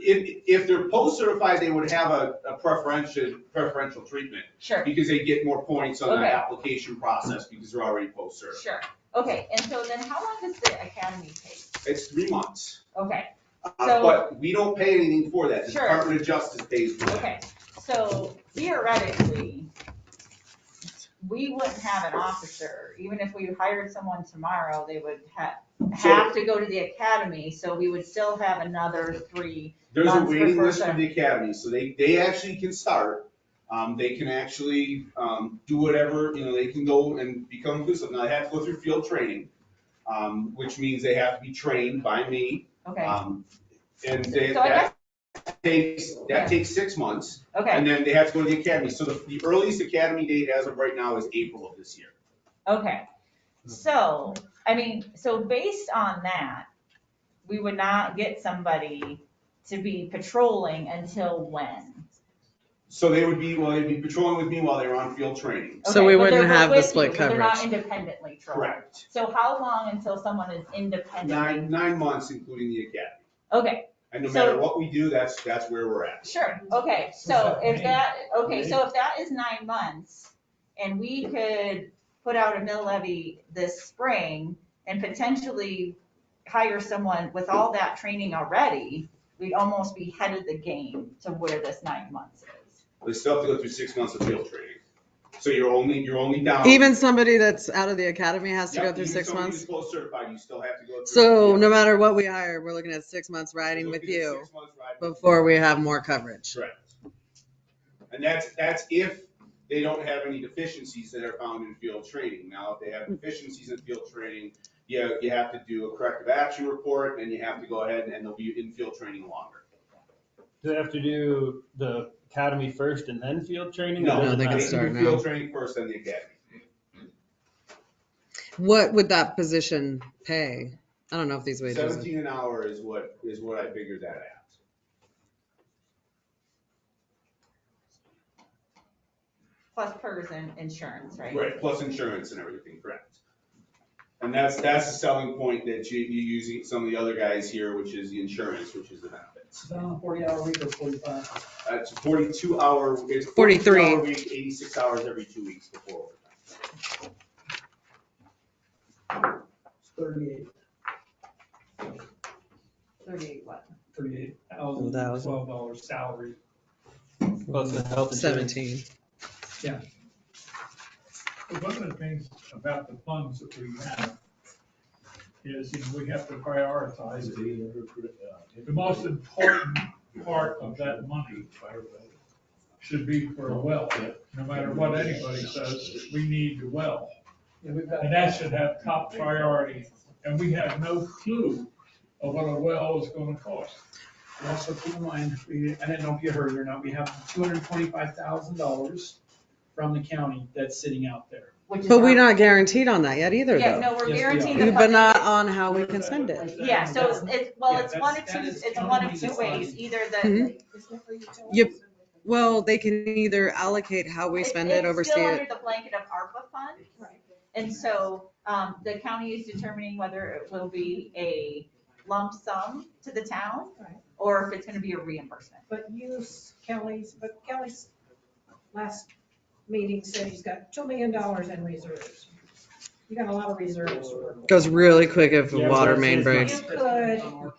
if, if they're post-certified, they would have a, a preferential, preferential treatment Sure, because they get more points on the Okay. application process because they're already post-certified. sure. Okay, and so then how long does the academy take? It's three months. Okay, Uh, So- But we don't pay anything for that. The Sure. Department of Justice pays for that. okay, so theoretically, we wouldn't have an officer, even if we hired someone tomorrow, they would have, have to go to the academy, so we would still have another three. There's a Months waiting before list for start. the academy, so they, they actually can start. Um, they can actually, um, do whatever, you know, they can go and become official. Now, they have to go through field training, um, which means they have to be trained by me. Okay, Um, And they, So I that takes, Yeah. that takes six months, okay, and then they have to go to the academy. So the, the earliest academy date as of right now is April of this year. okay. So, I mean, so based on that, we would not get somebody to be patrolling until when? So they would be, well, they'd be patrolling with me while they were on field training. So Okay, we but they're wouldn't have the with you, split but They're not coverage. independently trained. Correct. So how long until someone is independently? Nine, nine months, including the academy. Okay, And no So- matter what we do, that's, that's where we're at. sure, okay, so if that, okay, so if that is nine months, and we could put out a mill levy this spring and potentially hire someone with all that training already, we'd almost be ahead of the game to where this nine months is. They still have to go through six months of field training. So you're only, you're only down. Even somebody that's out of the academy has to Um, Yeah, go through even six somebody months. who's close certified, you still have to go through. So yeah. no matter what we hire, we're looking at six months riding Look with at the you six months ride. before we have more coverage. Correct. And that's, that's if they don't have any deficiencies that are found in field training. Now, if they have deficiencies in field training, you, you have to do a corrective action report and you have to go ahead and they'll be in field training longer. Do they have to do the academy first and then field training? No, Or No, does it they can matter? start do now. Field training first, then the academy. What would that position pay? I don't know if these wages. Seventeen an hour is what, is what I figured that at. Plus PERS and insurance, right? Right, plus insurance and everything, correct. And that's, that's the selling point that you, you using some of the other guys here, which is the insurance, which is the benefits. Is that on a forty hour week or forty-five? Uh, It's a forty-two hour, it's 43. forty-three hour week, eighty-six hours every two weeks before overtime. It's thirty-eight, Thirty-eight what? thirty-eight One thousand, thousand. twelve dollar salary. Plus the health insurance. Seventeen. But One of the things about the funds that we have is, you know, we have to prioritize the, the most important part of that money should be for a well, no matter what anybody says, we need the well. Yeah, we've got. And that should have top priority, and we have no clue of what a well is gonna cost. And Also keep in mind, we, I didn't know if you heard it or not, we have two hundred twenty-five thousand dollars from the county that's sitting out there. Which is But we're our- not guaranteed on that yet either Yeah, though. no, we're Yes, we are. guaranteed the. But not funding. on how we can spend it. Yeah, so it's, it's, well, Yeah, it's one of that's- two, that is it's one of counting two the ways, funding. either Mhm. the. Yep. Well, they can either allocate how we spend it, It's still oversee under it. the blanket of ARPA fund, and so, um, the county is determining whether it will be a lump sum to the town, Right. or if it's gonna be a reimbursement. But you, Kelly's, but Kelly's last meeting said he's got two million dollars in reserves. You got a lot of reserves. to work with. Goes really quick if the Yeah, water so main it's- it's- breaks. You could,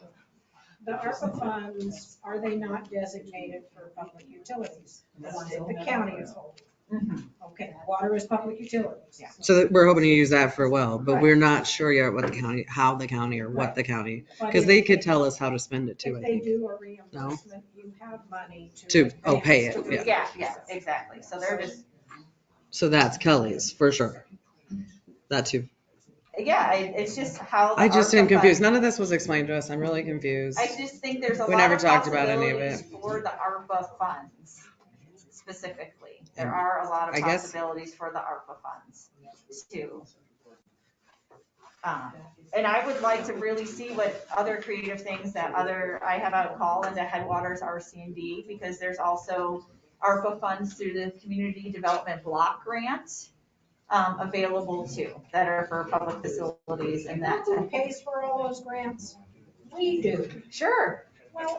the ARPA funds, are they not designated for public utilities? The ones that the county is holding. Mm-hmm. Okay, water is public utilities. Yeah. So that we're hoping to use that for well, but Right. we're not sure yet what the county, how the county or what Right. the county, But because if- they could tell us how to spend it too, I If they think. do a reimbursement, you have money to. To- oh, pay advance it, to yeah. Yeah, yeah, exactly, so they're just, So that's Kelly's for sure. That too. yeah, it- it's just how. the I just am ARPA fund- confused. None of this was explained to us. I'm really confused. I just think there's a We lot never of talked about any of possibilities for the ARPA funds specifically. There are a lot Mm. I of guess- possibilities for the ARPA funds too. Um, And I would like to really see what other creative things that other, I have out call into Headwaters RC&D because there's also ARPA funds through the Community Development Block Grant um, available too, that are for public facilities and that. Who pays for all those grants? We do. Sure, Well,